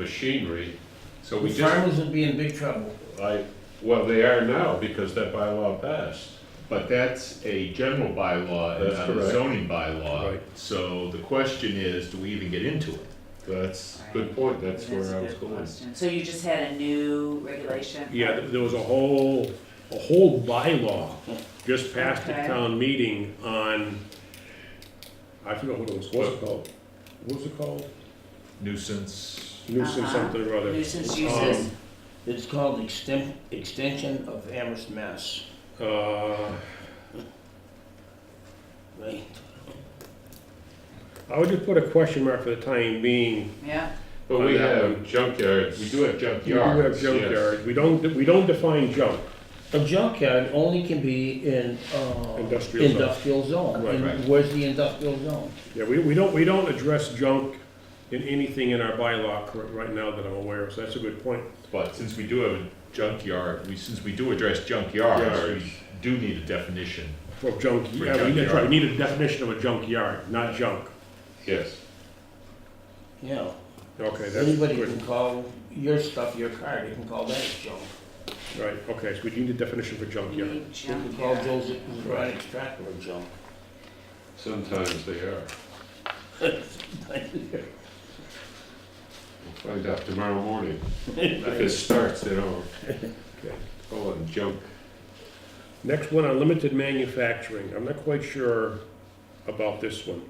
machinery, so we just, Farmers would be in big trouble. I, well, they are now because that bylaw passed. But that's a general bylaw and That's not a correct. zoning bylaw. Right. So the question is, do we even get into it? That's, good point, that's where I was going. So you just had a new regulation? Yeah, th- there was a whole, a whole bylaw just passed at Okay. town meeting on, I forget what it was, what's it called? What's it called? Nuisance, Nuisance Uh-huh. something or other. Nuisance uses? Um, It's called exten- extension of Amherst, Mass. Uh, Right. I would just put a question mark for the time being. Yeah, But On we that have junkyards. we do have We do have Yards, yes. junkyards, we don't, we don't define junk. A junkyard only can be in, uh. Industrial zone. industrial zone. Right, And right. Where's the industrial zone? Yeah, we, we don't, we don't address junk in anything in our bylaw cor- right now that I'm aware of, so that's a good point. but since we do have a junkyard, we, since we do address junkyards, Yards. we do need a definition. For junk, For yeah, we, that's junkyard. right, we need a definition of a junkyard, not junk. Yes, Yeah. Okay, that's Anybody can good, call your stuff your car, they can call that junk. right, okay, so we need a definition for you junkyard. need They can junk call here. Joe's exotic tractor a junk. sometimes they are. We'll find out tomorrow morning. If it starts, they don't. Okay. Call it junk. Next one, on limited manufacturing. I'm not quite sure about this one.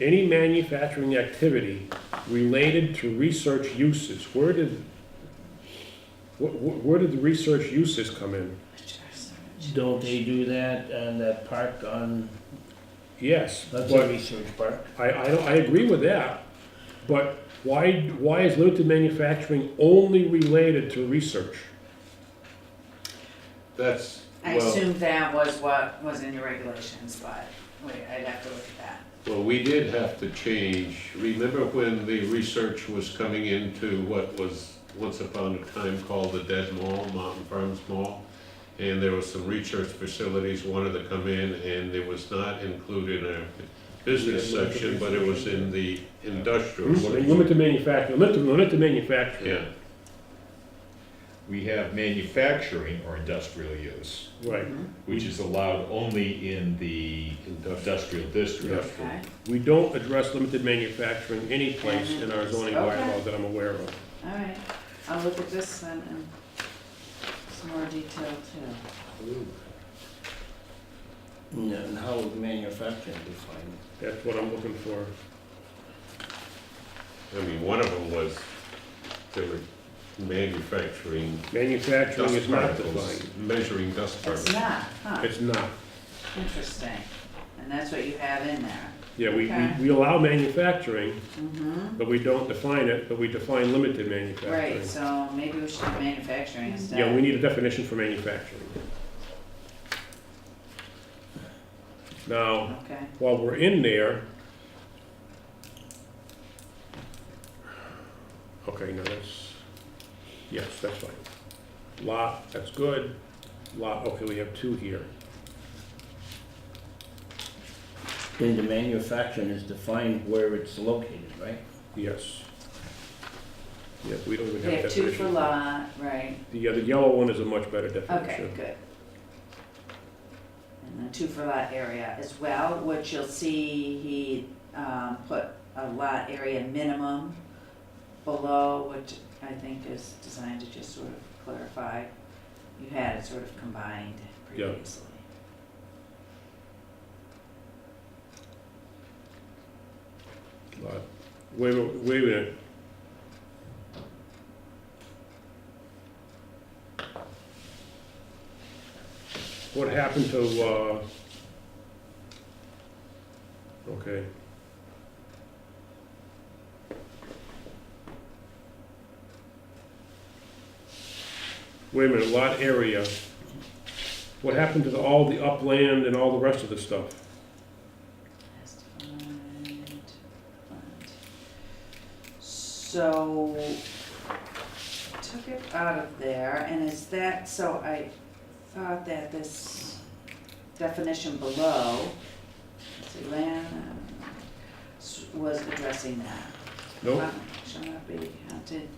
Any manufacturing activity related to research uses, where did, wh- wh- where did the research uses come in? Don't they do that on that park on, Yes, that's a but research park? I, I, don't- I agree with that, but why, why is limited manufacturing only related to research? That's, I well, assume that was what was in your regulations, but wait, I'd have to look at that. well, we did have to change. Remember when the research was coming into what was once upon a time called the Dead Mall, Mountain Farms Mall? And there was some research facilities wanted to come in and it was not included in our business section, but it was in the industrial. Mm-hmm. section. Limited manufacturing, limited, limited manufacturing. Yeah. We have manufacturing or industrial use, Right. Mm-hmm. which is allowed only in the industrial district. Okay, We don't address limited manufacturing any place in our zoning Okay. bylaw that I'm aware of. all right. I'll look at this then in some more detail too. No, And how would manufacturing define it? That's what I'm looking for. I mean, one of them was, they were manufacturing Manufacturing dust is not particles, defined. measuring dust It's particles. not, huh, It's not. interesting. And that's what you have in there. Yeah, we, Okay. we, we allow manufacturing, Mm-hmm, but we don't define it, but we define limited manufacturing. right, so maybe we should do manufacturing instead. Yeah, we need a definition for manufacturing. Now, Okay, while we're in there. Okay, no, that's, yes, that's fine. Lot, that's good. Lot, okay, we have two here. Then the manufacturing is defined where it's located, right? Yes. Yeah, we don't even we have have two for definition. lot, right, The other yellow one is a much better okay, definition. good. And then two for lot area as well, which you'll see he, um, put a lot area minimum below, which I think is designed to just sort of clarify. You had it sort of combined Yeah. previously. Lot. Wait, a- wait a minute. What happened to, uh, okay. Wait a minute, lot area. What happened to the- all the upland and all the rest of the stuff? As defined, defined. So, took it out of there, and is that, so I thought that this definition below, let's see, land, uh, s- was addressing that. Nope. Shall not be, huh? wanted